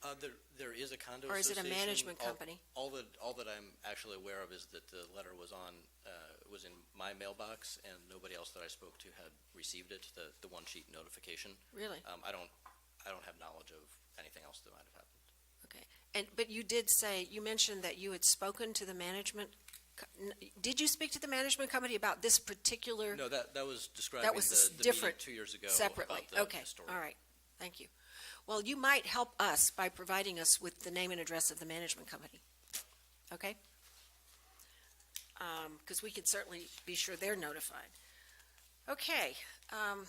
Uh, there, there is a condo Or is association. it a management All- company? All that, all that I'm actually aware of is that the letter was on, uh, was in my mailbox, and nobody else that I spoke to had received it, the, the one sheet notification. Really? Um, I don't, I don't have knowledge of anything else that might have happened. And, but you did say, you mentioned that you had spoken to the management. co- n- Did you speak to the management company about this particular No, that, that was describing the, was the meeting different, two years ago separately? about the Okay, historic all right, thank you. Well, you might help us by providing us with the name and address of the management company, okay? Because we can certainly be sure they're notified. Okay, um,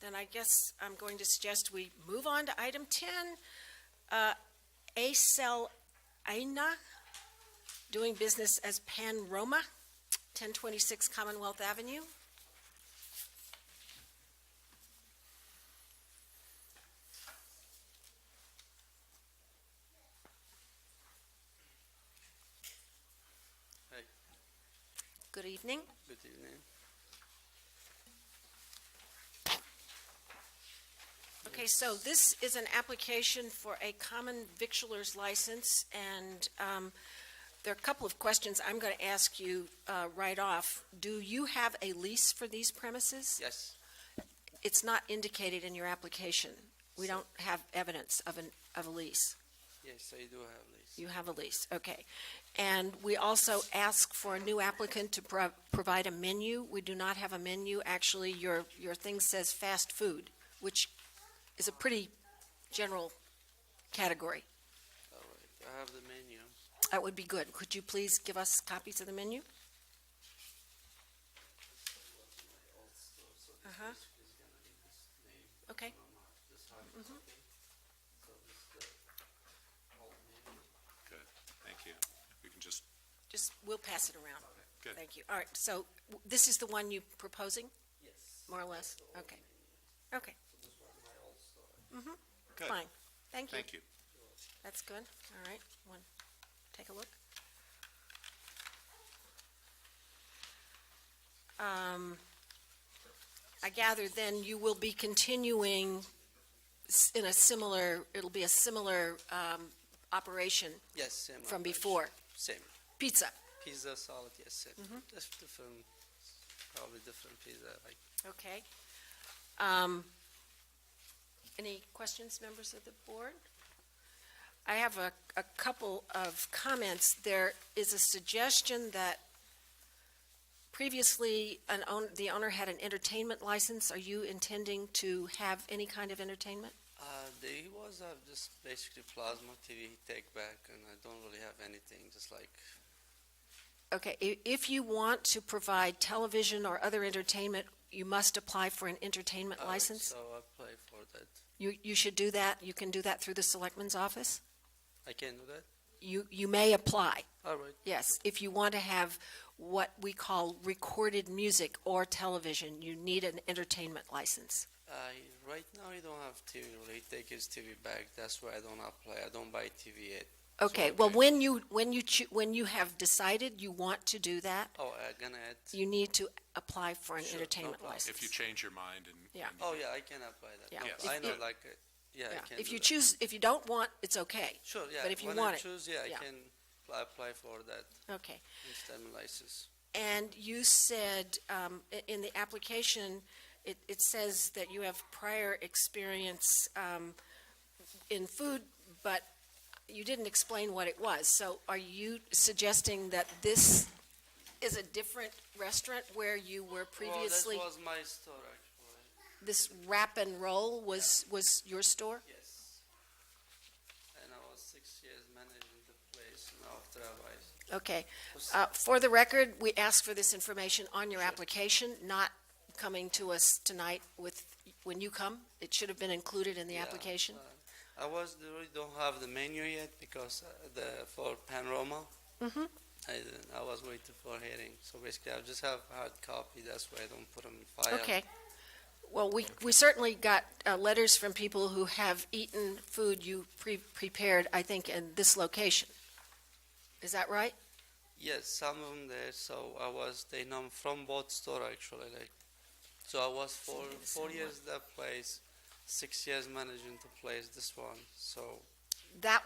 then I guess I'm going to suggest we move on to item 10, uh, Acel Aina, doing business as Pan Roma, 1026 Commonwealth Avenue. Good evening. Good evening. Okay, so this is an application for a common victualer's license, and um, there are a couple of questions I'm going to ask you uh, right off. Do you have a lease for these premises? Yes, It's not indicated in your application. We don't have evidence of an, of a lease. yes, I do have lease. You have a lease, okay. And we also ask for a new applicant to pro- provide a menu. We do not have a menu. Actually, your, your thing says fast food, which is a pretty general category. All right, I have the menu. That would be good. Could you please give us copies of the menu? Uh-huh. Okay. Good, thank you. We can just, Just, we'll pass it around. Good. Thank you. All right, so w- this is the one you proposing, Yes. more or less? Okay. Okay, Mm-hmm. good, fine. Thank you. thank you. That's good. All right, one, take a look. Um, I gather then you will be continuing s- in a similar, it'll be a similar, um, operation Yes, same. from operation. before. Mm-hmm. Same. Pizza, Pizza, salad, yes, same. Just different, probably different pizza, like, okay. Um, any questions, members of the board? I have a, a couple of comments. There is a suggestion that previously an own, the owner had an entertainment license. Are you intending to have any kind of entertainment? uh, they was have just basically plasma TV he take back and I don't really have anything, just like, Okay, i- if you want to provide television or other entertainment, you must apply for an entertainment All right, license. uh, Oh, So I play for that. You, you should do that. You can do that through the selectman's office. I can do that? You, you may apply. All right, Yes, if you want to have what we call recorded music or television, you need an entertainment license. I, right now I don't have TV, really, he take his TV back, that's why I don't apply, I don't buy TV yet. Okay, well, okay. when you, when you, choo- when you have decided you want to do that, Oh, I gonna add, you need to apply for an Sure, no entertainment problem. license. If you change your mind and. Yeah. and- oh yeah, I can apply that. Yeah. No, Yes. I If know, you- like, uh, yeah, I Yeah, can If do you that. choose, if you don't want, it's okay. Sure, yeah. But if you when want I it, choose, yeah, yeah. I can pl- apply for that Okay. STEM license. And you said, um, i- in the application, it, it says that you have prior experience, um, in food, but you didn't explain what it was. So are you suggesting that this is a different restaurant where you were previously? Oh, that was my store actually. This wrap and roll was, was your store? Yes. And I was six years managing the place, and after I was Okay. Uh, For the record, we ask for this information on your application, not coming to us tonight with, when you come. It should have been included in the Yeah, application. uh, I was really don't have the menu yet because uh, the for Panorama. Mhm. uh, I didn't, I was waiting for hearing. So basically, I just have hard copy. That's why I don't put them in file. Okay. Well, we, we certainly got uh, letters from people who have eaten food you pre- prepared, I think, in this location. Is that right? Yes, some of them there. So I was they know from both store actually. Like, so I was for Something the four same years that place, six years managing the place. This one. So That